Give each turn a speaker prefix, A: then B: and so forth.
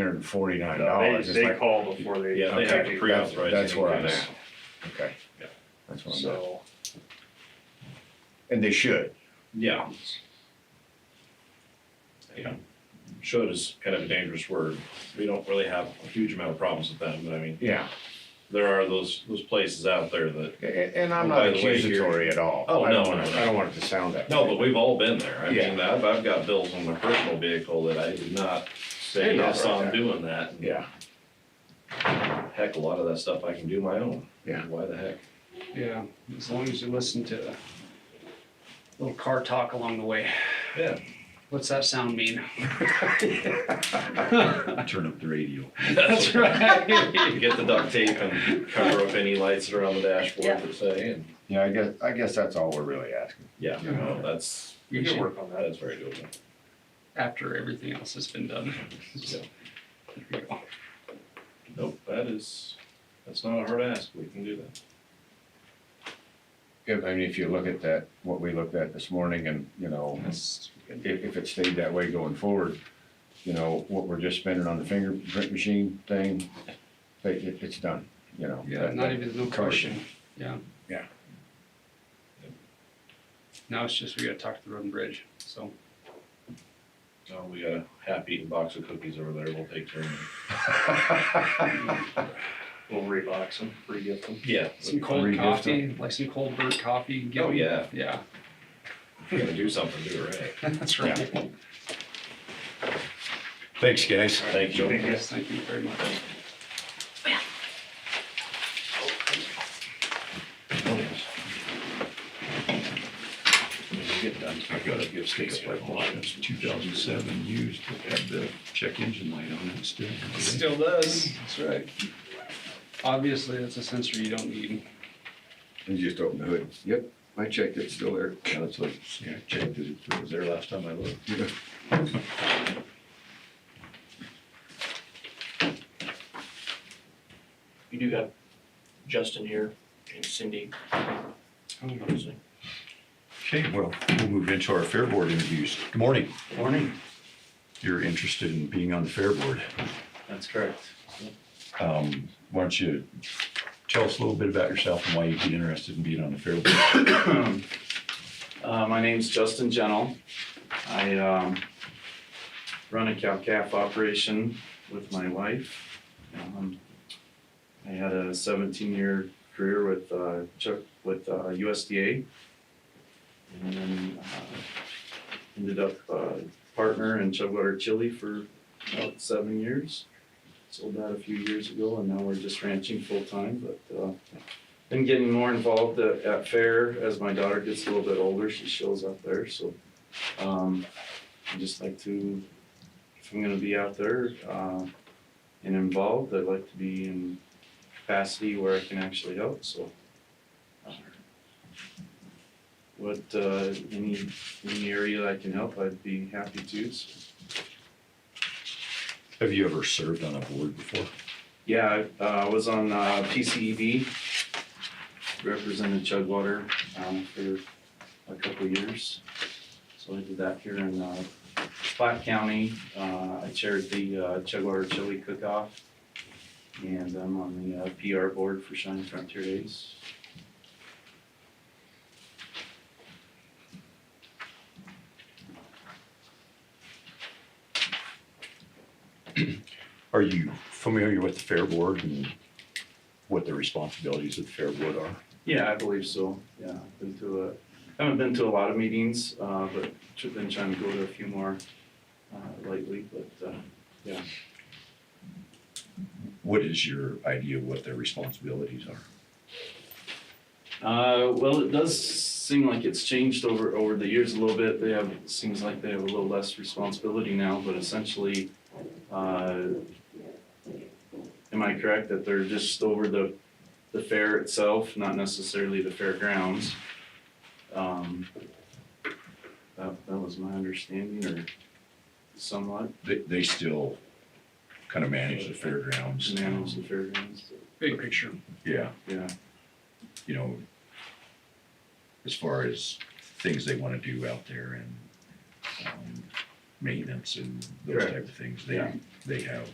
A: hundred and forty-nine
B: No,
A: dollars.
B: They, they call before they.
C: Yeah, they have to
B: Okay.
C: pre-authorize you
A: That's where I'm
C: to do
A: at. Okay.
C: Yeah.
A: That's what I'm at.
B: So,
A: And they should.
C: Yeah. Yeah, should is kind of a dangerous word. We don't really have a huge amount of problems with them, but I mean,
A: Yeah.
C: there are those, those places out there that,
A: A- a- And I'm
C: By
A: not
C: the way, here-
A: accusatory at all.
C: Oh,
A: I don't
C: no,
A: wanna-
C: no, no.
A: I don't want it to sound that.
C: no,
A: way.
C: but we've all been there. I mean,
A: Yeah.
C: I've, I've got bills on my personal vehicle that I did not
A: They're
C: say,
A: not
C: yes, I'm
A: right.
C: doing that.
A: Yeah,
C: Heck, a lot of that stuff I can do my own.
A: Yeah.
C: Why the heck?
D: Yeah, as long as you listen to a little car talk along the way.
C: Yeah.
D: What's that sound mean?
E: Turn up the radio.
D: That's right.
C: Get the duct tape and cover up any lights that are on the dashboard per se, and,
A: yeah, I guess, I guess that's all we're really asking.
C: yeah, no, that's,
B: you
D: You
B: can
D: should,
B: work on that.
C: that's very doable.
D: after everything else has been done. So, there you go.
C: Nope, that is, that's not a hard ask, we can do that.
A: If, I mean, if you look at that, what we looked at this morning and, you know,
D: That's
A: if, if it stayed that way going forward, you know, what we're just spending on the fingerprint machine thing, it, it- it's done, you know.
D: Yeah,
A: That-
D: not
A: that-
D: even, no
A: covered.
D: question, yeah.
A: Yeah.
D: Now it's just we gotta talk to the road and bridge, so.
C: Oh, we got a half-eaten box of cookies over there, we'll take turn.
B: We'll rebox them, re-gift them.
C: Yeah.
D: Some
A: Read
D: cold
A: this
D: coffee, like some cold burnt coffee. give
C: Oh,
D: 'em-
C: yeah.
D: Yeah,
C: We're gonna do something, do it right.
D: that's right.
A: Thanks, guys.
C: Thank you.
D: Yes, thank you very much.
E: When you get done, I've got to give Stacy a lot of two thousand seven used, that had the check engine light on it still.
D: Still does. That's right. Obviously, that's a sensor you don't need.
E: You just open the hood. Yep, I checked, it's still there. Yeah, it's like, yeah, I checked it, it was
C: Was there last time I looked?
E: there.
F: You do have Justin here and Cindy, obviously.
E: Okay, well, we'll move into our Fair Board interviews. Good morning.
F: Morning.
E: You're interested in being on the Fair Board.
F: That's correct.
E: Um, Why don't you tell us a little bit about yourself and why you'd be interested in being on the Fair Board?
F: Uh, my name's Justin Gentle. I, um, run a cow calf operation with my wife. Um, I had a seventeen year career with, uh, Chuck, with, uh, USDA. And then, uh, ended up, uh, partner in Chugwater Chili for about seven years. Sold that a few years ago and now we're just ranching full time, but, uh, been getting more involved at, at fair as my daughter gets a little bit older. She shows up there, so um, I just like to, if I'm gonna be out there uh, and involved, I'd like to be in capacity where I can actually help. So, uh, what uh, any any area I can help, I'd be happy to. So,
E: Have you ever served on a board before?
F: Yeah, I uh, was on uh, PCEB, represented Chugwater um, for a couple of years. So I did that here in uh, Platte County. Uh, I chaired the uh, Chugwater Chili Cook-Off, and I'm on the uh, PR board for Shining Frontier Days.
E: Are you familiar with the Fair Board and what the responsibilities of the Fair Board are?
F: Yeah, I believe so. Yeah, I've been to a, haven't been to a lot of meetings, uh, but tr- been trying to go to a few more uh, lately, but uh,
E: What is your idea of what their responsibilities are?
F: Uh, well, it does seem like it's changed over, over the years a little bit. They have, seems like they have a little less responsibility now, but essentially, uh, am I correct that they're just over the, the fair itself, not necessarily the fairgrounds? Um, that, that was my understanding or somewhat,
E: They, they still kind of manage the fairgrounds.
F: manage the fairgrounds,
D: Big picture.
E: Yeah,
F: yeah.
E: you know, as far as things they want to do out there and um, maintenance and those
F: Correct.
E: type of things, they,
F: Yeah.
E: they have